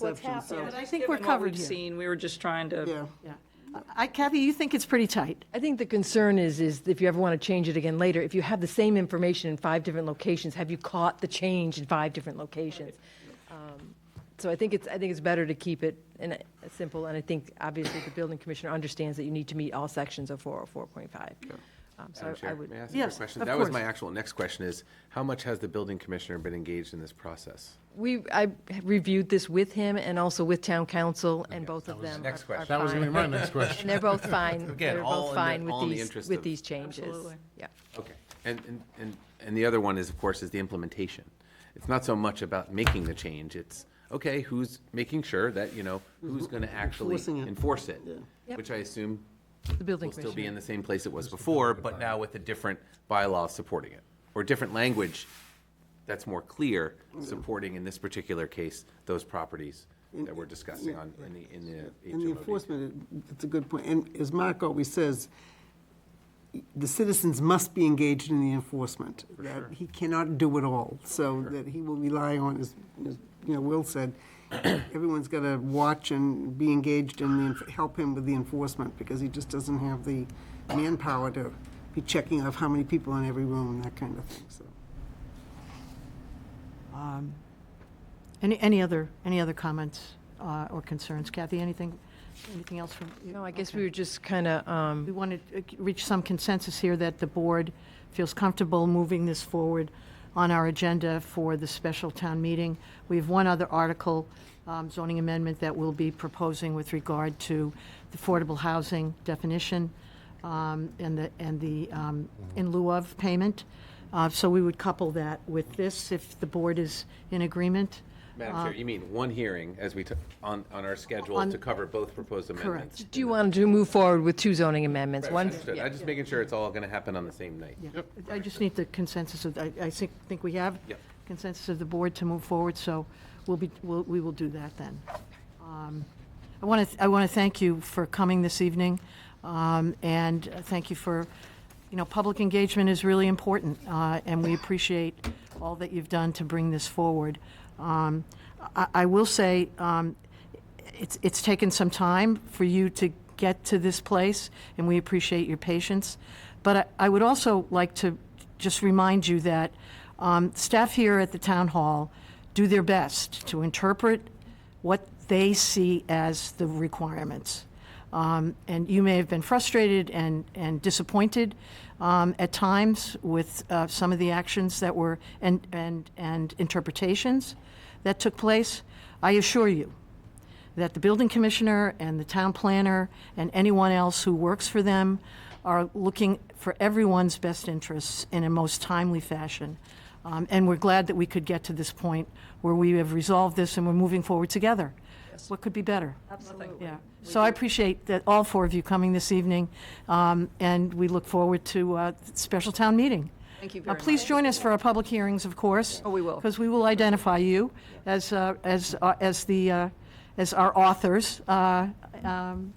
what's exception, so- happened. I think we're covered here. Seen, we were just trying to, Yeah, Yeah. I, Kathy, you think it's pretty tight. I think the concern is, is if you ever want to change it again later, if you have the same information in five different locations, have you caught the change in five different locations? Um, So I think it's, I think it's better to keep it in a- a simple, and I think obviously the building commissioner understands that you need to meet all sections of 404.5. Um, So Madam I- I Chair, would, may I ask you a Yes, quick question? of That was course. my actual next question is, how much has the building commissioner been engaged in this process? we, I reviewed this with him and also with town council, and both that of was- them Next are- are question. That was going to fine. be my next question. And they're both fine. Again, They're all both in the- fine with all in the these, interest with of- these changes. Absolutely. Yeah. Okay. And, and- and, and the other one is, of course, is the implementation. It's not so much about making the change, it's, okay, who's making sure that, you know, who's going to actually Enforcing Mm-hmm. it. enforce it? Yep. Which I assume The building will still be in commissioner. the same place it was before, but now with a different bylaw supporting it, or different language that's more clear, Mm-hmm. supporting in this particular case, those properties that we're discussing on, in the, in the and the HMOD. enforcement, it- it's a good point. And as Mark always says, the citizens must be engaged in the enforcement. That he cannot do it all, so that he will rely on, as, as, you know, Will said, everyone's got to watch and be engaged in the, enf- help him with the enforcement, because he just doesn't have the manpower to be checking off how many people in every room and that kind of thing, so. Any, any other, any other comments uh, or concerns? Kathy, anything, anything else from? No, I guess we were just um, kind of, Um, We want to reach some consensus here that the board feels comfortable moving this forward on our agenda for the special town meeting. We have one other article, um, zoning amendment, that we'll be proposing with regard to the affordable housing definition um, and the, and the um, in lieu of payment. Uh, So we would couple that with this if the board is in agreement. Madam Uh, Chair, you mean one hearing as we took, on, on our schedule On- to cover both proposed amendments? Do you want to move forward with two zoning amendments? Right, One, Understood, I'm just making sure it's all going to happen on the same night. Yeah, I just need the consensus of, I, I think, think we have Yep. consensus of the board to move forward, so we'll be, we'll, we will do that then. Um, I want to, I want to thank you for coming this evening, um, and thank you for, you know, public engagement is really important, uh, and we appreciate all that you've done to bring this forward. Um, I, I will say, um, it's, it's taken some time for you to get to this place, and we appreciate your patience. But I, I would also like to just remind you that um, staff here at the town hall do their best to interpret what they see as the requirements. Um, and you may have been frustrated and, and disappointed um, at times with uh, some of the actions that were and, and, and interpretations that took place. I assure you, that the building commissioner and the town planner and anyone else who works for them are looking for everyone's best interests in a most timely fashion. Um, and we're glad that we could get to this point where we have resolved this and we're moving forward together. What could be better? Absolutely. Yeah. So I appreciate that all four of you coming this evening, um, and we look forward to uh, special town meeting. Thank you Uh, very Please join us for our public hearings, of course. Oh, we will. Because we will identify you as, uh, as, uh, as the, uh, as our authors, uh, um,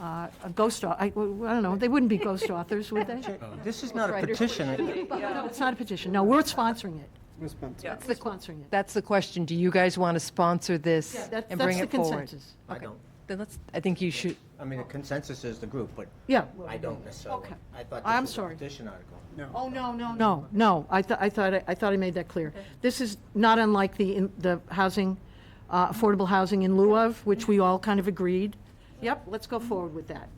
uh, a ghost, au- I, well, I don't know, they wouldn't be ghost authors, would they? This is not a petition. No, It's not a petition, no, we're sponsoring it, Responsible. we're sponsoring it. that's the question. Do you guys want to sponsor this That- and bring it That's the forward? consensus. I don't, Then let's, I think you should, I mean, the consensus is the group, but Yeah. I don't necessarily. Okay. I thought I'm this was sorry. a petition article. Oh, no, no, no, no, I thought, I thought, I- I thought I made that clear. This is not unlike the, in- the housing, uh, affordable housing in lieu of, which we all kind of agreed. Yep, let's go forward with that.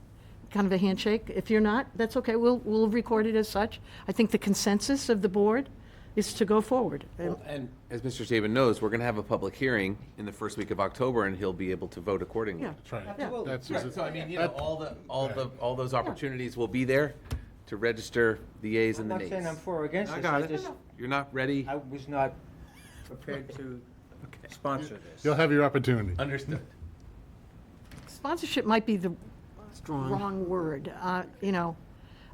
Kind of a handshake, if you're not, that's okay, we'll, we'll record it as such. I think the consensus of the board is to go forward. And as Mr. Saban knows, we're going to have a public hearing in the first week of October, and he'll be able to vote accordingly. Yeah. Right. Yeah. That's Right, So I mean, you know, all the, all the, all those opportunities will be there to register the yays I'm and the not nays. saying I'm for or against I this, got I it. just, You're not ready? I was not prepared to sponsor this. You'll have your opportunity. Understood. Sponsorship might be the Strong. wrong word, uh, you know,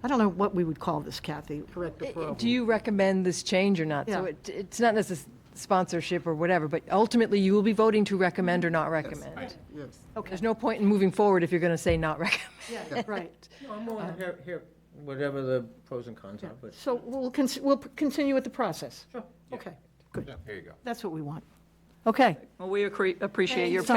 I don't know what we would call this, Kathy. Correct the eh, do you recommend this change or not? So Yeah. it, it's not necess, sponsorship or whatever, but ultimately you will be voting to recommend or not recommend. Yes. Okay, There's no point in moving forward if you're going to say not recommend. right. No, I'm willing to hear, hear whatever the pros and cons are, but. So we'll, con- we'll p- continue with the process? Sure. Okay, good. There you go. That's what we want. Okay. Well, we accre- appreciate your Thanks so